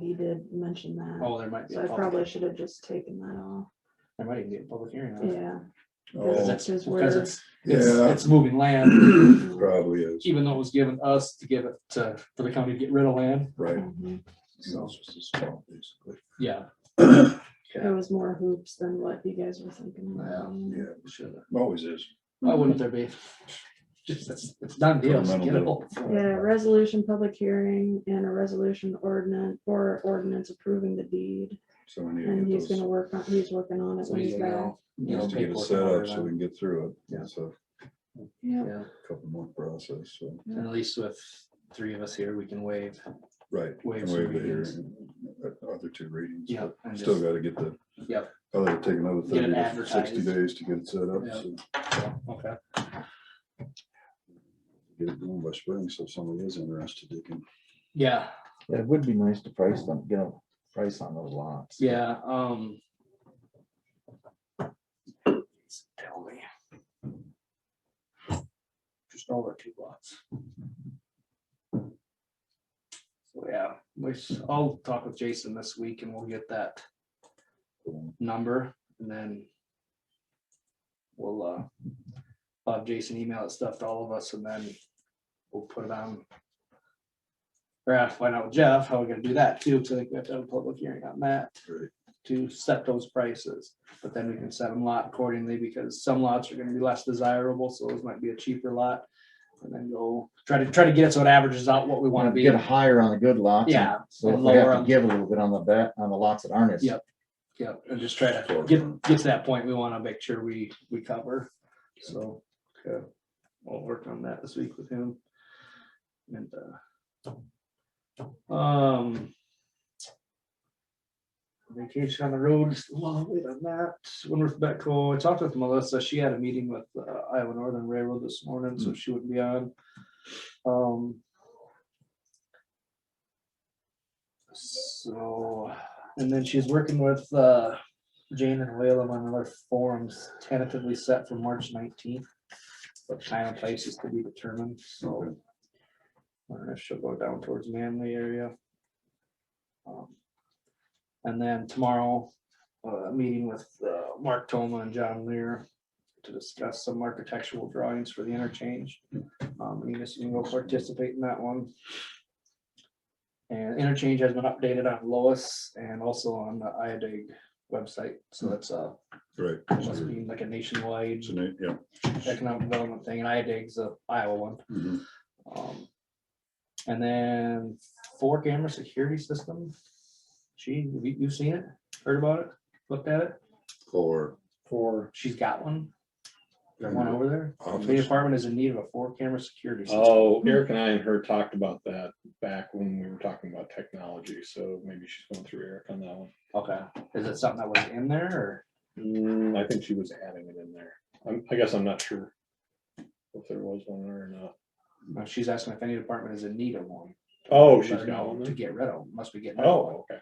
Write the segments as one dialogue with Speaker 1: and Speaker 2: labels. Speaker 1: He did mention that,
Speaker 2: Oh, there might be. a
Speaker 1: so I
Speaker 2: public-
Speaker 1: probably should have just taken that off,
Speaker 2: There might even be a public hearing. on it.
Speaker 1: yeah.
Speaker 2: Because
Speaker 1: That's
Speaker 2: it's-
Speaker 1: his
Speaker 2: Because
Speaker 1: word.
Speaker 2: it's, it's,
Speaker 3: Oh, Yeah.
Speaker 2: it's moving land,
Speaker 3: Probably is,
Speaker 2: even though it was given us to give it to, for the county to get rid of land,
Speaker 3: right?
Speaker 1: Mhm.
Speaker 2: so,
Speaker 3: Basically.
Speaker 2: yeah.
Speaker 1: There was more hoops than what you guys were thinking.
Speaker 2: Well,
Speaker 3: Yeah,
Speaker 2: Should have.
Speaker 3: always is.
Speaker 2: Why
Speaker 1: Mm-hmm.
Speaker 2: wouldn't there be? Just, it's, it's done deal, just get it
Speaker 3: Fundamental
Speaker 2: over.
Speaker 1: Yeah, resolution, public hearing, and a resolution ordinance, or ordinance approving the deed,
Speaker 3: So we need to
Speaker 1: and
Speaker 3: get
Speaker 1: he's
Speaker 3: those,
Speaker 1: gonna work on, he's working on it
Speaker 2: So
Speaker 1: when
Speaker 2: he's
Speaker 1: he's back.
Speaker 2: gonna, you know,
Speaker 3: just to get it
Speaker 2: paperwork
Speaker 3: set
Speaker 2: in order
Speaker 3: up so we
Speaker 2: then.
Speaker 3: can get through it.
Speaker 2: Yeah.
Speaker 3: It's a
Speaker 1: Yeah,
Speaker 2: Yeah,
Speaker 3: couple more process, so,
Speaker 2: and at least with three of us here, we can waive,
Speaker 3: right.
Speaker 2: Waive
Speaker 3: and
Speaker 2: some
Speaker 3: waive the
Speaker 2: readings.
Speaker 3: hearing, uh, Other two readings.
Speaker 2: yeah.
Speaker 3: but
Speaker 2: and
Speaker 3: Still
Speaker 2: just-
Speaker 3: gotta get the.
Speaker 2: Yep.
Speaker 3: Probably take another
Speaker 2: Get
Speaker 3: thirty
Speaker 2: it
Speaker 3: to sixty
Speaker 2: advertised.
Speaker 3: days to get it set up,
Speaker 2: Yeah.
Speaker 3: so
Speaker 2: Okay,
Speaker 3: get it going by spring, so if somebody is interested, they can.
Speaker 2: yeah,
Speaker 4: Yeah, It would be nice to price them, get a price on those lots.
Speaker 2: yeah, um. Tell me. Just all the two lots. So, yeah, which I'll talk with Jason this week and we'll get that number and then. We'll, uh, I'll have Jason email it stuff to all of us and then we'll put it on. Or I'll find out with Jeff how we're gonna do that too, because I think we have to have a public hearing on that
Speaker 3: Right.
Speaker 2: to set those prices. But then we can set them lot accordingly because some lots are gonna be less desirable, so those might be a cheaper lot. And then go try to try to get it so it averages out what we wanna
Speaker 4: Want to
Speaker 2: be.
Speaker 4: get higher on the good lots. and-
Speaker 2: Yeah,
Speaker 4: So if
Speaker 2: and
Speaker 4: we
Speaker 2: lower
Speaker 4: have
Speaker 2: on-
Speaker 4: to give a little bit on the bet, on the lots that aren't as.
Speaker 2: Yep. Yeah, and just try to get, get to that point, we wanna make sure we, we cover, so, okay, I'll work on that this week with him. And, uh. Um. Vacation on the roads, well, wait on that, Winworth Betco, I talked with Melissa, she had a meeting with uh, Iowa Northern Railroad this morning, so Hmm. she wouldn't be on. Um. So, and then she's working with, uh, Jane and Whalem on other forums tentatively set for March nineteenth. But time and place is to be determined, so. I don't know if she'll go down towards Manly area. Um, And then tomorrow, uh, meeting with, uh, Mark Toma and John Lear to discuss some architectural drawings for the interchange. Um, you just, you can go participate in that one. And interchange has been updated on Lois and also on the IADIG website, so that's uh
Speaker 3: Right.
Speaker 2: must be like a nationwide
Speaker 3: It's a na- Yeah.
Speaker 2: economic development thing, and IADIG's the Iowa one.
Speaker 3: Mhm.
Speaker 2: Um, And then four camera security system. She, have you- you've seen it, heard about it, looked at it,
Speaker 3: For
Speaker 4: For.
Speaker 2: she's got one. Got one over there. The
Speaker 3: Mm-hmm. office,
Speaker 2: apartment is in need of a four camera security. system.
Speaker 5: Oh, Eric and I and her talked about that back when we were talking about technology, so maybe she's going through Eric on that one.
Speaker 2: Okay, is it something that was in there or?
Speaker 5: Mm, I think she was adding it in there. I'm, I guess I'm not sure if there was one there or not.
Speaker 2: no, She's asking if any department is in need of one.
Speaker 5: Oh,
Speaker 2: Let
Speaker 5: she's
Speaker 2: her
Speaker 5: got
Speaker 2: know
Speaker 5: one.
Speaker 2: To
Speaker 5: then.
Speaker 2: get rid of, 'em. must be getting. rid of one.
Speaker 5: Oh, okay.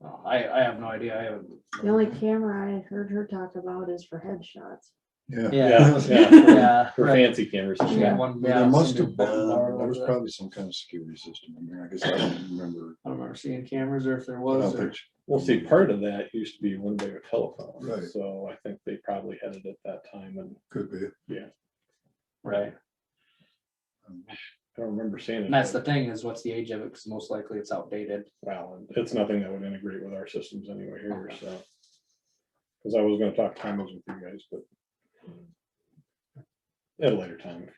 Speaker 2: Uh, I, I have no idea, I haven't.
Speaker 1: the only camera I heard her talk about is for headshots.
Speaker 3: yeah.
Speaker 5: Yeah, yeah.
Speaker 2: Yeah.
Speaker 5: Her
Speaker 2: right.
Speaker 5: fancy cameras.
Speaker 2: She got one, yeah,
Speaker 3: There must
Speaker 2: some big
Speaker 3: have been,
Speaker 2: barn
Speaker 3: Uh, there
Speaker 2: over
Speaker 3: was
Speaker 2: there.
Speaker 3: probably some kind of security system in there. I guess I don't remember.
Speaker 2: I don't remember seeing cameras or if there
Speaker 3: I don't
Speaker 2: was. or-
Speaker 3: think-
Speaker 5: Well, see, part of that used to be when they were telephone,
Speaker 3: Right.
Speaker 5: so I think they probably had it at that time and
Speaker 3: Could be.
Speaker 2: Right.
Speaker 5: I don't remember seeing it.
Speaker 2: And that's
Speaker 5: but-
Speaker 2: the thing is what's the age of it? Because most likely it's outdated.
Speaker 5: Well, and it's nothing that would integrate with our systems anyway here, so. Cause I was gonna talk timers with you guys, but. At a later time.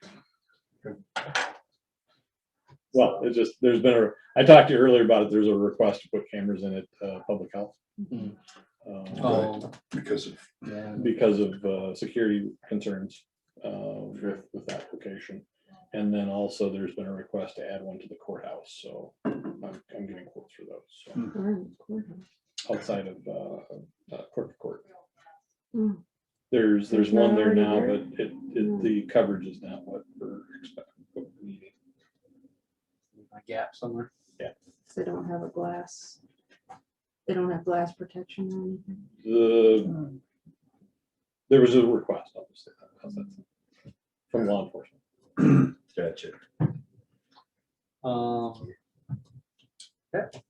Speaker 5: Well, it's just, there's been a, I talked to you earlier about it, there's a request to put cameras in at, uh, public health.
Speaker 2: Mhm.
Speaker 5: um,
Speaker 2: Oh,
Speaker 3: Because of
Speaker 2: yeah.
Speaker 5: Because of, uh, security concerns, uh, with, with that application. And then also there's been a request to add one to the courthouse, so I'm, I'm getting quotes for those, so
Speaker 1: Or in the courthouse.
Speaker 5: outside of uh, uh, court to court.
Speaker 1: Hmm.
Speaker 5: There's, there's
Speaker 1: There's none
Speaker 5: one there
Speaker 1: already
Speaker 5: now,
Speaker 1: there?
Speaker 5: but it, it,
Speaker 1: Hmm.
Speaker 5: the coverage is not what we're expecting. what we're needing.
Speaker 2: A gap somewhere.
Speaker 1: They don't have a glass. They don't have glass protection or anything.
Speaker 5: The, uh, there was a request, obviously, from law enforcement.
Speaker 3: Gotcha.
Speaker 2: Um. Yeah,